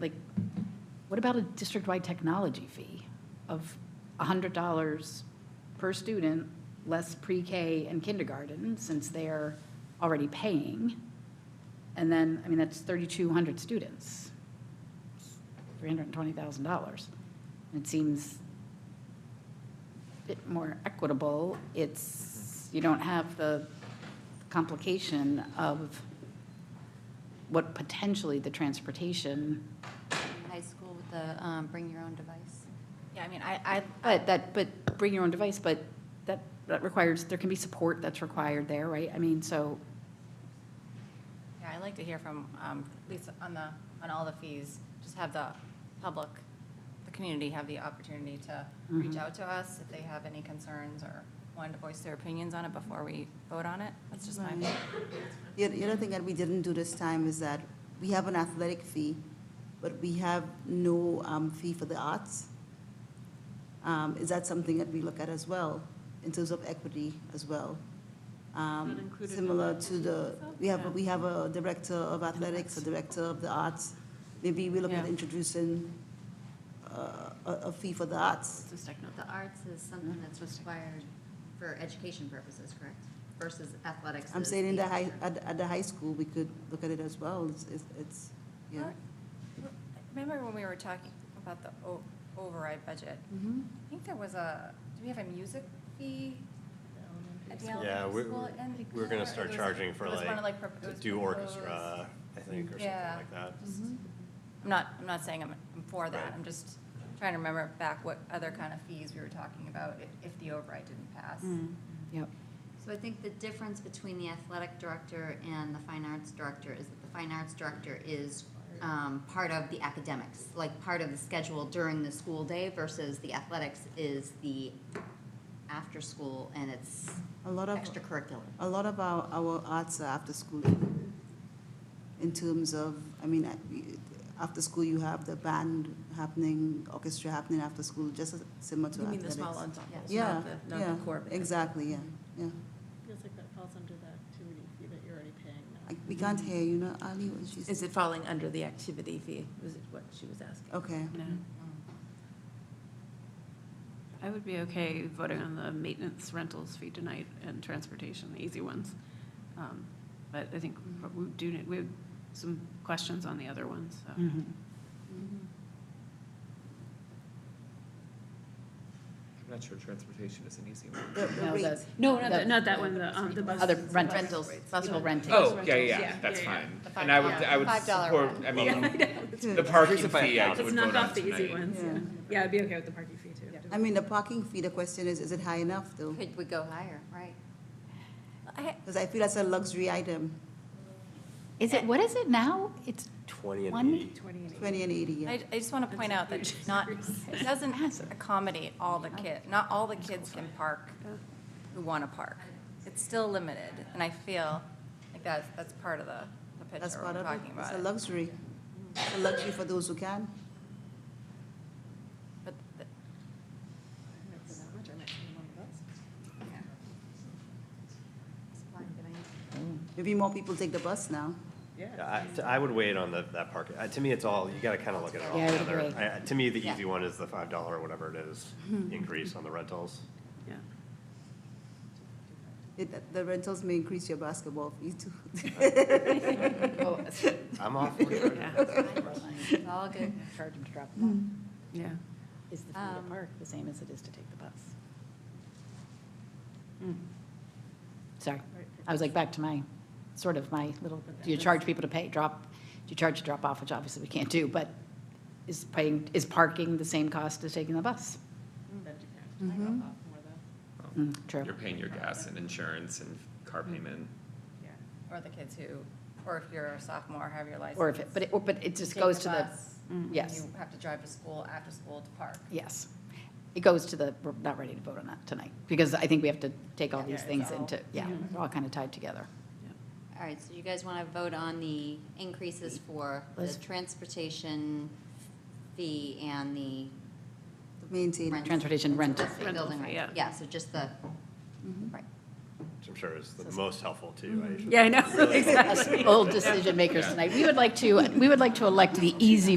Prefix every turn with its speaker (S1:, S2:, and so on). S1: like, what about a district-wide technology fee of $100 per student, less pre-K and kindergarten, since they're already paying? And then, I mean, that's 3,200 students, $320,000. It seems a bit more equitable. It's, you don't have the complication of what potentially the transportation,
S2: High school with the um, bring your own device.
S3: Yeah, I mean, I, I,
S1: but that, but bring your own device, but that, that requires, there can be support that's required there, right? I mean, so,
S3: yeah, I like to hear from, um, at least on the, on all the fees, just have the public, the community have the opportunity to reach out to us if they have any concerns or wanted to voice their opinions on it before we vote on it. That's just my,
S4: The oth- the other thing that we didn't do this time is that we have an athletic fee, but we have no um, fee for the arts. Um, Is that something that we look at as well, in terms of equity as well? Um, Similar to the, we have, a- we have a director of athletics, a director of the arts. Maybe we look at
S5: Yeah.
S4: introducing uh, a a fee for the arts.
S2: The arts is something that's required for education purposes, correct? Versus athletics.
S4: I'm
S2: is
S4: saying in the
S2: the
S4: high,
S2: option.
S4: at the- at the high school, we could look at it as well. It's- It's, it's, yeah.
S3: remember when we were talking about the o- override budget? I think there was a, do we have a music fee? at the
S6: Yeah,
S3: elementary
S6: we-
S3: school and-
S6: We're gonna start
S3: It was-
S6: charging for
S3: it was one of,
S6: like,
S3: pro- it
S6: to
S3: was
S6: do
S3: proposed.
S6: orchestra, I think, or something
S3: Yeah.
S6: like that.
S3: Just-
S1: Mm-hmm.
S3: I'm not, I'm not saying I'm, I'm for that,
S6: Right.
S3: I'm just trying to remember back what other kind of fees we were talking about if, if the override didn't pass.
S7: Hmm.
S5: Mm.
S1: yep.
S2: So I think the difference between the athletic director and the fine arts director is that the fine arts director is um, part of the academics, like part of the schedule during the school day versus the athletics is the after school and it's
S4: A lot of.
S2: extracurricular.
S4: A lot of our, our arts are after school, even. in terms of, I mean, I- after school, you have the band happening, orchestra happening after school, just as similar to
S5: You mean the
S4: athletics.
S5: small ensembles,
S4: Yeah,
S5: not the,
S4: yeah,
S5: not the core band?
S4: exactly, yeah, yeah.
S8: Feels like that falls under the activity fee that you're already paying now.
S4: I- We can't hear you, know, Ali, what she
S5: Is
S4: said.
S5: it falling under the activity fee, was it what she was asking? Mm.
S4: Okay,
S7: No. I would be okay voting on the maintenance rentals fee tonight and transportation, the easy ones. Um, But I think what
S8: Mm-hmm.
S7: we do, need- we have some questions on the other ones, so.
S1: Mm-hmm.
S9: I'm not sure transportation is an easy one.
S4: the, the
S1: No,
S4: rate,
S1: that's-
S7: No, not,
S1: the-
S7: the- not that one, the, um, the bus.
S1: Other
S7: the
S1: rent-
S7: bus-
S1: rentals,
S7: bus
S1: people
S7: rent-
S1: renting.
S7: bus
S9: Oh, yeah,
S7: rentals,
S9: yeah, that's
S7: yeah, yeah.
S9: fine. And I would, I would
S2: $5
S9: support, I mean, the
S6: Here's
S9: parking
S6: the five
S9: fee I would
S6: thousand.
S9: vote
S7: Let's
S9: on
S7: knock off the easy
S9: tonight.
S7: ones, yeah.
S4: Yeah.
S7: Yeah, I'd be okay with the parking fee too.
S4: I mean, the parking fee, the question is, is it high enough though?
S2: Could we go higher, right?
S3: I,
S4: Because I feel that's a luxury item,
S1: Is it, what is it now? It's
S6: Twenty
S1: One-
S6: and eighty.
S4: twenty and eighty, yeah.
S3: I, I just want to point out that it's not, it doesn't accommodate all the kid, not all the kids can park who want to park. It's still limited, and I feel like that's, that's part of the, the
S4: That's
S3: picture
S4: part
S3: we're
S4: of it,
S3: talking
S4: it's
S3: about.
S4: a
S3: it.
S4: luxury, it's a luxury for those who can.
S3: But the-
S8: For that much, I might spend one of those.
S2: Supply and demand.
S4: Maybe more people take the bus now.
S8: Yeah.
S6: I, t- I would wait on the, that park, Uh, to me, it's all, you gotta kinda look at it all
S1: Yeah, I would
S6: together.
S1: agree.
S6: I- To me, the
S2: Yeah.
S6: easy one is the five dollar, or whatever it is, increase on the rentals.
S7: Yeah.
S4: It- The rentals may increase your basketball fee too.
S1: Oh,
S6: I'm all for it.
S2: It's all good.
S1: Charge them to drop them
S8: Mm-hmm.
S7: Yeah.
S1: off. Is the fee to
S2: Um,
S1: park the same as it is to take the bus? Hmm. Sorry, I was like back to my, sort of my little, do you charge people to pay, drop, do you charge to drop off, which obviously we can't do, but is paying, is parking the same cost as taking the bus?
S8: That depends. I go up more though.
S1: Mm, True.
S9: You're paying your gas and insurance and car
S7: Mm.
S9: payment.
S8: Yeah.
S3: Or the kids who, or if you're a sophomore, have your license.
S1: Or if it, but it, or- but it just
S3: take
S1: goes to the, Mm-hmm.
S3: bus,
S1: yes.
S3: You have to drive to school, after school to park.
S1: yes. It goes to the, we're not ready to vote on that tonight, because I think we have to take all Mm-hmm.
S3: Yeah,
S1: these
S3: it's
S1: things
S3: all-
S1: into, yeah, they're all kind of tied together.
S2: All right, so you guys want to vote on the increases for the
S1: Let's-
S2: transportation fee and the
S4: Maintain.
S2: rent-
S1: Transportation rental fee.
S2: Building
S7: Rental fee, yeah.
S2: rent, yeah, so just the, right.
S6: Which I'm sure is the most helpful too.
S3: Mm-hmm.
S6: I usually-
S7: Yeah, I know, exactly.
S1: Us old decision makers tonight. We would like to, we would like to elect the easy